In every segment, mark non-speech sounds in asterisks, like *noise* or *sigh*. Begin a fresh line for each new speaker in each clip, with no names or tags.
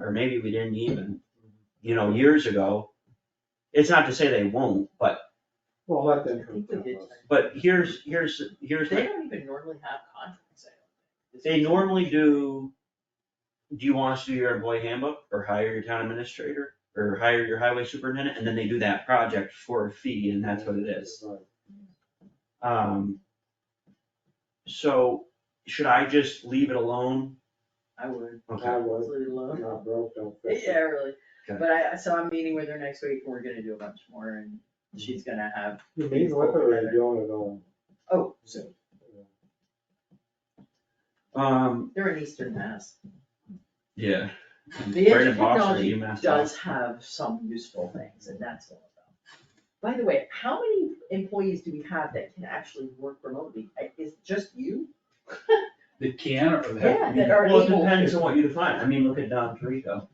or maybe we didn't even, you know, years ago. It's not to say they won't, but,
Well, let them.
I think we did.
but here's, here's, here's,
They
the-
don't even normally have contracts, I don't think.
they normally do, do you want us to do your employee handbook, or hire your town administrator, or hire your highway superintendent, and then they do that project for a fee, and that's what it is. Um, so should I just leave it alone?
I would,
I
Okay,
was,
leave it alone.
not broke, don't fix
*laughs* Yeah,
it.
really,
Okay.
but I, so I'm meeting with her next week, and we're gonna do a bunch more, and she's gonna have,
You mean, what are they doing at all?
oh, so,
um,
they're in Eastern Mass.
yeah.
The
Right in Boston,
technology
you messed up.
does have some useful things, and that's all about. By the way, how many employees do we have that can actually work remotely? I- Is it just you?
That can or that.
Yeah, that are
Well, it
able
depends
to.
on what you define. I mean, look at Don Perico.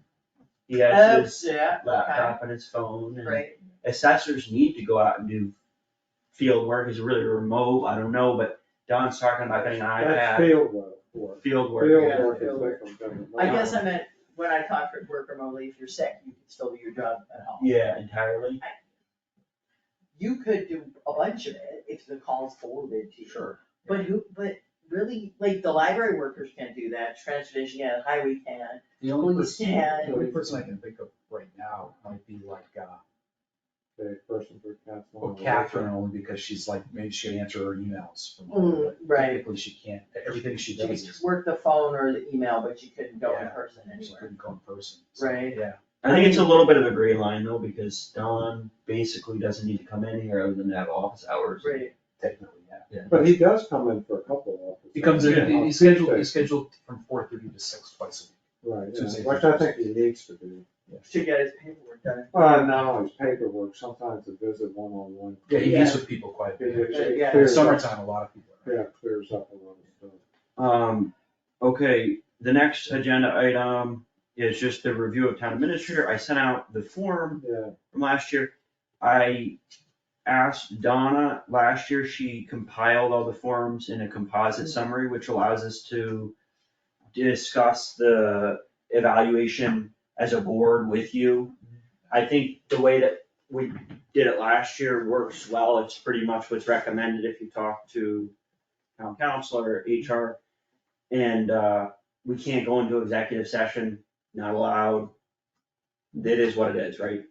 He
*laughs* Oh,
has his
yeah,
laptop and his phone and
Right,
assessors need to go out and do field work. Is really remote. I don't know, but Don's talking about getting an
That's
iPad,
field work, work.
field
Field
work.
work is
Field work.
different than.
I guess I meant, when I talk for work remotely, if you're sick, you can still do your job at home.
Yeah, entirely.
You could do a bunch of it if the call's forwarded to you.
Sure.
But who, but really, like, the library workers can't do that, transportation, yeah, highway can,
The only
police
person,
can.
the only person I can think of right now might be like, uh,
The person for council.
well, Catherine, only because she's like, maybe she'll answer her emails from.
Mm, right.
Technically, she can't, everything she
She
does
could
is,
work the phone or the email, but she couldn't go in
Yeah.
person
she
anywhere.
couldn't go in person. so,
Right.
Yeah,
I think it's a little bit of a gray line though, because Don basically doesn't need to come in here other than to have office hours.
Right.
technically, yeah.
But he does come in for a couple of hours.
He comes
Yeah.
in, he- he's scheduled, he's scheduled from four thirty to six twice
Right, yeah,
Tuesday,
which I think he needs to do.
a week.
To get his paperwork done.
Well, not always paperwork, sometimes a visit one-on-one.
Yeah, he meets with people quite a
It- it-
bit.
it
Yeah.
In the
clears up-
summertime, a lot of people. are-
Yeah, clears up a lot of stuff.
Um, okay, the next agenda item is just the review of town administrator. I sent out the form
Yeah,
from last year. I asked Donna last year, she compiled all the forms in a composite summary, which allows us to discuss the evaluation as a board with you. I think the way that we did it last year works well. It's pretty much what's recommended if you talk to town counselor, HR. And uh, we can't go into executive session, not allowed. It is what it is, right?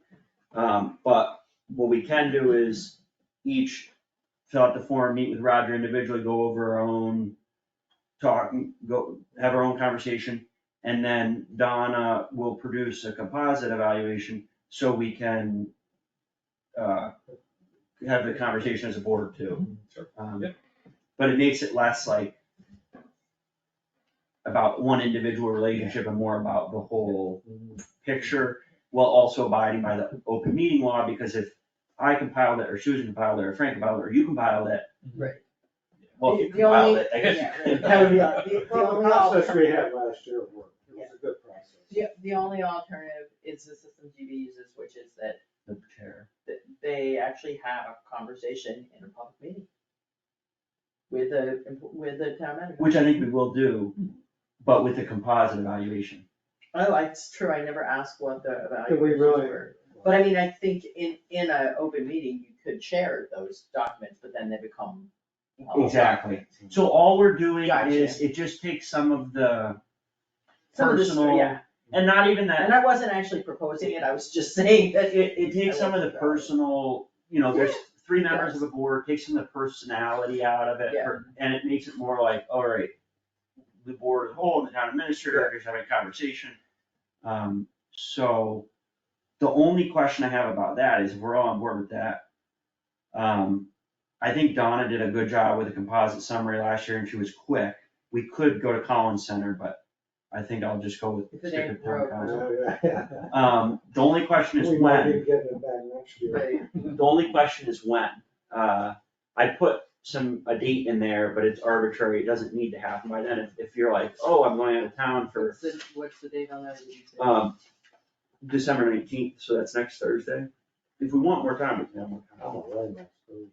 Um, but what we can do is each fill out the form, meet with Roger individually, go over our own talk, go, have our own conversation, and then Donna will produce a composite evaluation so we can uh, have the conversation as a board too.
Sure.
Um,
Yep.
But it makes it less like about one individual relationship and more about the whole
Mm-hmm.
picture while also abiding by the open meeting law, because if I compiled it, or Susan compiled it, or Frank compiled it, or you compiled it.
Right.
Well, if you
The- the only-
compiled it, I guess.
yeah,
you
*laughs* right.
compiled it.
Yeah, the- the
well, the
only
process we
alternative-
had last year worked, it was a good process.
Yeah, the only alternative is the system GB uses, which is that,
The chair.
that they actually have a conversation in a public meeting. With a, with a town manager.
Which I think we will do, but with a composite evaluation.
Oh, it's true, I never asked what the
Did we
evaluations
really?
were. But I mean, I think in, in a open meeting, you could share those documents, but then they become. public
Exactly. So all we're doing
Gotcha.
is, it just takes some of the
Some of this-
personal,
yeah.
and not even that,
And I wasn't actually proposing it, I was just saying that.
It, it takes some of
I
the
like that.
personal, you know, there's
Yeah.
three members of the board, takes some of the personality out of it,
Yeah.
or- and it makes it more like, all right, the board as a whole and the town administrator are just having a conversation. Um, so the only question I have about that is if we're all on board with that. Um, I think Donna did a good job with a composite summary last year and she was quick. We could go to Collins Center, but I think I'll just go with.
If it
stick
ain't
with town
broke,
council.
Yeah, yeah.
Um, the only question is
*laughs* We
when.
might be getting it back next year.
Right.
The only question is when. Uh, I put some, a date in there, but it's arbitrary, it doesn't need to happen by then, if, if you're like, oh, I'm going out of town for,
What's the, *laughs* what's the date on that? did you say?
um, December nineteenth, so that's next Thursday. If we want more time, we can have more
I'm
time.
away next week.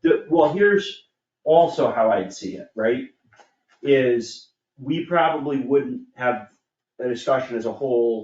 The, well, here's also how I'd see it, right? Is we probably wouldn't have the discussion as a whole